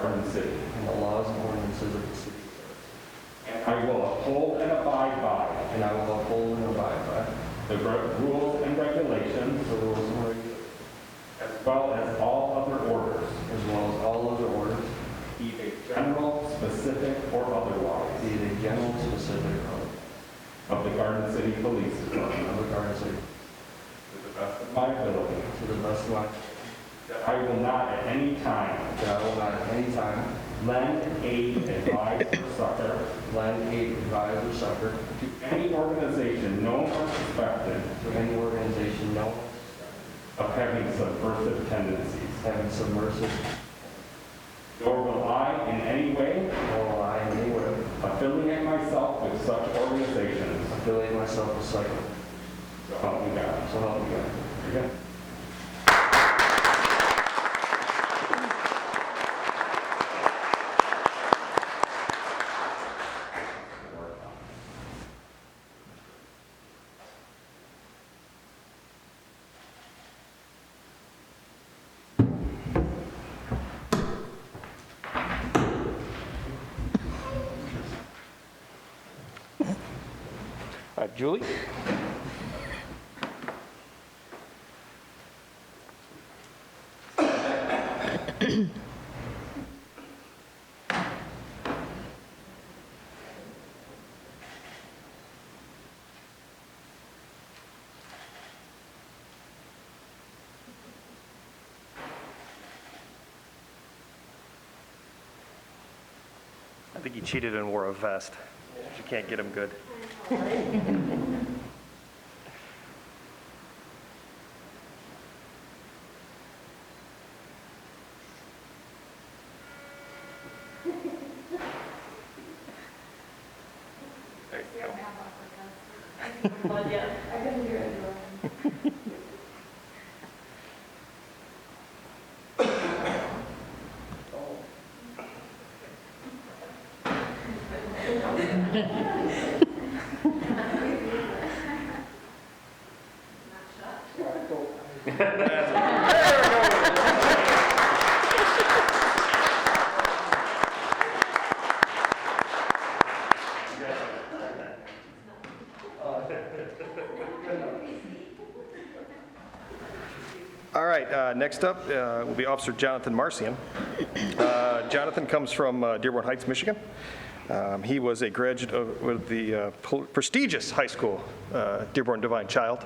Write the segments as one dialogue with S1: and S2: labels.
S1: of the city.
S2: and the laws and ordinances of the city.
S1: And I will uphold and abide by
S2: And I will uphold and abide
S1: the re- rules and regulations
S2: by the rules and regulations
S1: as well as all other orders,
S2: as well as all other orders,
S1: either general, specific, or otherwise,
S2: be they general, specific, or
S1: of the Garden City Police Department
S2: of the Garden City,
S1: to the best of my ability.
S2: to the best of my,
S1: That I will not at any time
S2: that I will not at any time
S1: lend, aid, advise, or succor
S2: lend, aid, advise, or succor
S1: to any organization known or suspected
S2: to any organization known
S1: of having subversive tendencies.
S2: as having submersive,
S1: Nor will I in any way
S2: nor will I in any way
S1: affiliate myself with such organizations.
S2: affiliate myself with such,
S1: So help me God.
S2: so help me God.
S1: Okay.
S3: Uh, Julie?
S4: I think he cheated and wore a vest. You can't get him good. There you go.
S5: Well, yeah, I couldn't hear anyone.
S4: All right, uh, next up uh, will be Officer Jonathan Marcian. Uh, Jonathan comes from uh, Dearborn Heights, Michigan. Um, He was a graduate of with the uh, pl- prestigious high school, uh, Dearborn Divine Child,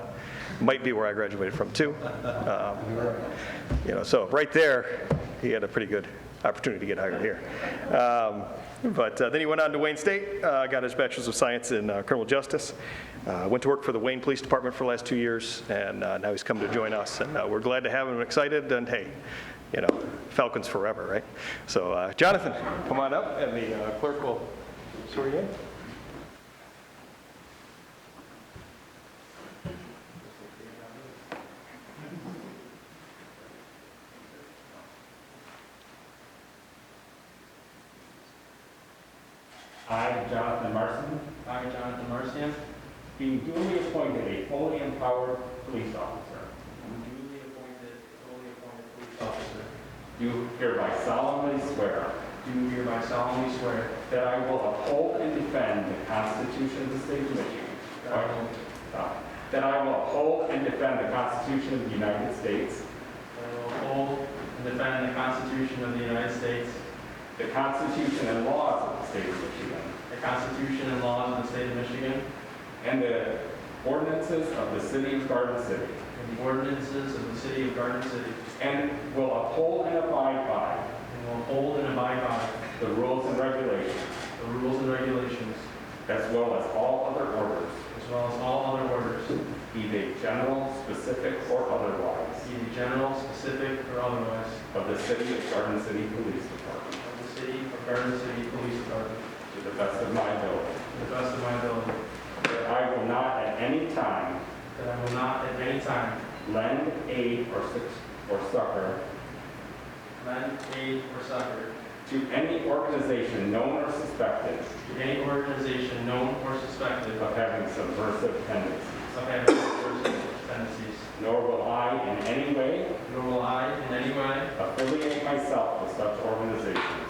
S4: might be where I graduated from, too. Um, You know, so right there, he had a pretty good opportunity to get hired here. Um, But uh, then he went on to Wayne State, uh, got his Bachelor's of Science in uh, Criminal Justice, uh, went to work for the Wayne Police Department for the last two years, and uh, now he's come to join us. And uh, we're glad to have him, excited, and hey, you know, Falcons forever, right? So uh, Jonathan, come on up, and the uh, clerk will swear you in.
S1: I, Jonathan Marson,
S6: I, Jonathan Marcian,
S1: being duly appointed a fully empowered police officer,
S6: am duly appointed, fully appointed police officer,
S1: do hereby solemnly swear
S6: do hereby solemnly swear
S1: that I will uphold and defend the Constitution of the State of Michigan.
S6: that I will,
S1: Uh, That I will uphold and defend the Constitution of the United States,
S6: that I will uphold and defend the Constitution of the United States,
S1: the Constitution and laws of the State of Michigan,
S6: the Constitution and laws of the state of Michigan,
S1: and the ordinances of the City of Garden City,
S6: and the ordinances of the city of Garden City,
S1: and will uphold and abide by
S6: and will uphold and abide by
S1: the rules and regulations,
S6: the rules and regulations,
S1: as well as all other orders,
S6: as well as all other orders,
S1: be they general, specific, or otherwise,
S6: either general, specific, or otherwise,
S1: of the City of Garden City Police Department,
S6: of the city of Garden City Police Department,
S1: to the best of my ability.
S6: to the best of my ability,
S1: That I will not at any time
S6: that I will not at any time
S1: lend, aid, or suc- or succor
S6: lend, aid, or succor
S1: to any organization known or suspected
S6: to any organization known or suspected
S1: of having subversive tendencies,
S6: of having subversive tendencies,
S1: nor will I in any way
S6: nor will I in any way
S1: affiliate myself with such organizations